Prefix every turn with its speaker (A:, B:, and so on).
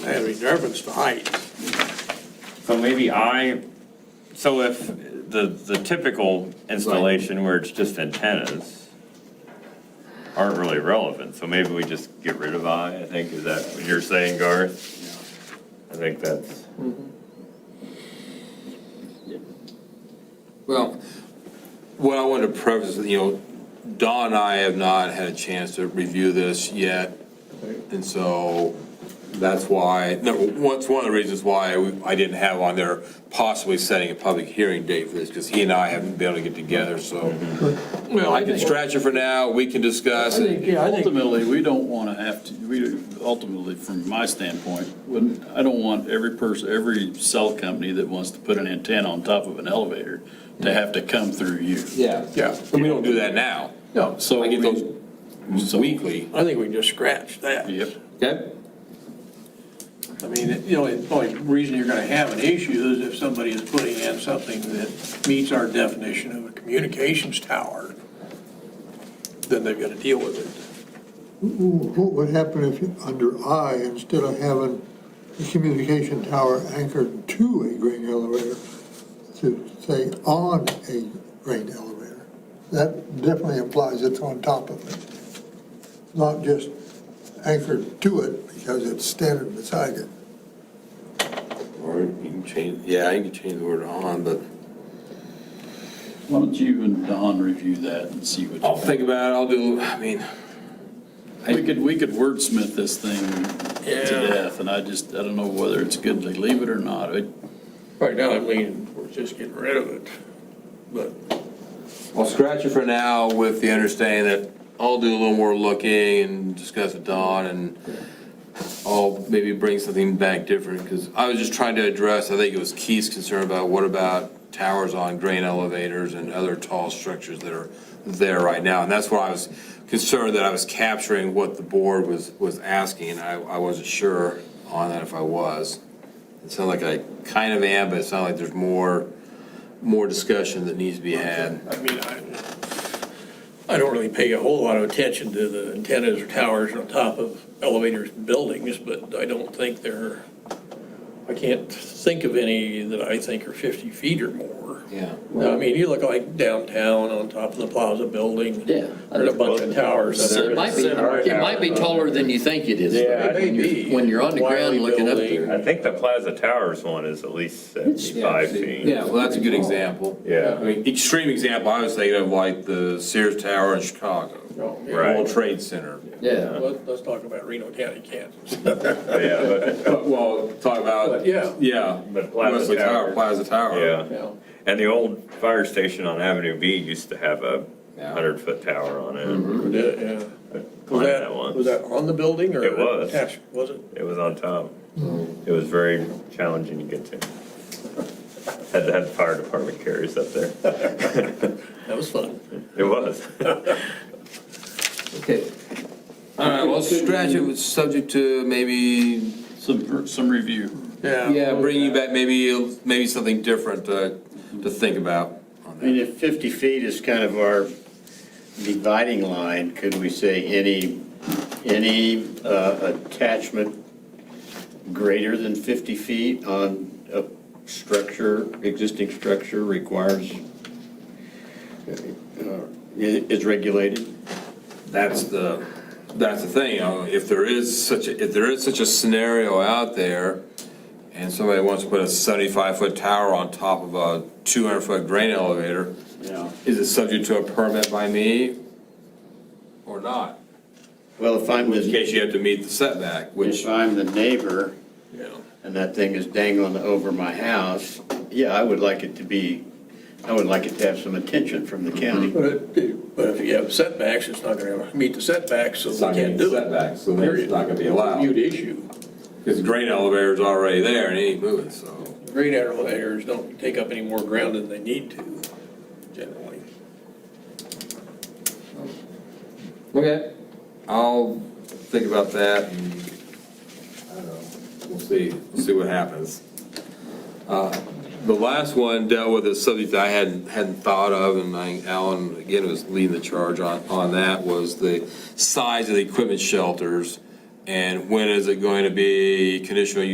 A: I mean, they're reference to height.
B: So maybe I, so if the, the typical installation where it's just antennas aren't really relevant, so maybe we just get rid of I, I think, is that what you're saying, Garth? I think that's,
C: Well, what I wanted to preface, you know, Dawn and I have not had a chance to review this yet. And so that's why, no, what's one of the reasons why we- I didn't have on there possibly setting a public hearing date for this, because he and I haven't been able to get together, so.
A: Mm-hmm.
C: Well, I can stretch it for now, we can discuss
D: I
C: it.
D: think
E: Ultimately, we don't want to have to, we, ultimately, from my standpoint, wouldn't, I don't want every person, every cell company that wants to put an antenna on top of an elevator to have to come through you.
D: Yeah.
C: Yeah, and we don't do that now.
E: No. So.
C: I get
E: we-
C: those
E: so-
C: weekly.
A: I think we just scratched that.
E: Yep.
C: Okay.
F: I mean, it- you know, the only reason you're gonna have an issue is if somebody is putting in something that meets our definition of a communications tower, then they've gotta deal with it.
G: What would happen if, you- under I, instead of having the communication tower anchored to a grain elevator, to say on a grain elevator? That definitely implies it's on top of it, not just anchored to it because it's standing beside it.
C: Or you can change, yeah, you can change the word on, but
E: Why don't you and Don review that and see what. you
C: I'll think about it, I'll do, I mean,
E: We could, we could wordsmith this thing to death, and I just, I don't know whether it's good to leave it or not. I-
A: Right now, I'm leaning, we're just getting rid of it. But
C: I'll scratch it for now with the understanding that I'll do a little more looking and discuss with Don and I'll maybe bring something back different, because I was just trying to address, I think it was Keith's concern about what about towers on grain elevators and other tall structures that are there right now, and that's where I was concerned that I was capturing what the board was, was asking, and I, I wasn't sure on that if I was. It sounded like I kind of am, but it sounded like there's more, more discussion that needs to be had.
F: I mean, I, I don't really pay a whole lot of attention to the antennas or towers on top of elevators and buildings, but I don't think they're, I can't think of any that I think are 50 feet or more.
C: Yeah.
F: I mean, you look like downtown on top of the Plaza Building.
H: Yeah.
F: There's a bunch of towers. that are-
H: It might be, it might be taller than you think it is.
B: Yeah,
F: It may be.
H: When you're on the
F: Wiley
H: ground looking up
F: Building.
H: there.
B: I think the Plaza Towers one is at least seventy-five feet.
C: Yeah, well, that's a good example.
B: Yeah.
C: I mean, extreme example, I was thinking of like the Sears Tower in Chicago,
F: Oh, yeah.
B: Right.
C: World Trade Center.
H: Yeah.
F: Let- Let's talk about Reno County, Kansas.
B: Yeah, but-
C: But, Well, talk about,
F: But, yeah.
C: yeah,
B: But Plaza
C: Wesley Tower,
B: Tower.
C: Plaza Tower.
B: yeah.
F: Yeah.
B: And the old fire station on Avenue B used to have a
C: Yeah. Mm-hmm.
B: hundred-foot tower on it.
F: Yeah. Was
B: Climbed
F: that,
B: that one.
F: was that on the building or?
B: It was.
F: attached? Was it?
B: It was on top. It was very challenging to get to. Had to have the fire department carries up there.
F: That was fun.
B: It was.
H: Okay.
C: All right, well, stretch it, was subject to maybe,
E: Some, some review.
C: yeah, bringing back maybe, maybe something different to, to think about on
I: I mean,
C: that.
I: if 50 feet is kind of our dividing line, could we say any, any uh, attachment greater than 50 feet on a structure, existing structure requires, uh, i- is regulated?
C: That's the, that's the thing, you know, if there is such, a if there is such a scenario out there, and somebody wants to put a seventy-five foot tower on top of a two hundred foot grain elevator,
I: Yeah.
C: Is it subject to a permit by me or not?
I: Well, if
C: In
I: I'm the,
C: case you have to meet the setback, which,
I: if I'm the neighbor and that thing is dangling over my house, yeah, I would like it to be, I would like it to have some attention from the county.
F: But it- but if you have setbacks, it's not going to meet the setbacks, so we
C: it's not gonna
F: can't
C: be
F: do it.
C: setback, so then it's not gonna be allowed.
F: Huge issue.
C: Because the grain elevator's already there and it ain't moving, so.
F: Grain elevators don't take up any more ground than they need to, generally.
C: Okay. I'll think about that and, I don't know, we'll see, we'll see what happens. Uh, The last one dealt with a subject that I hadn't, hadn't thought of, and I, Alan, again, was leading the charge on, on that, was the size of the equipment shelters And when is it going to be conditional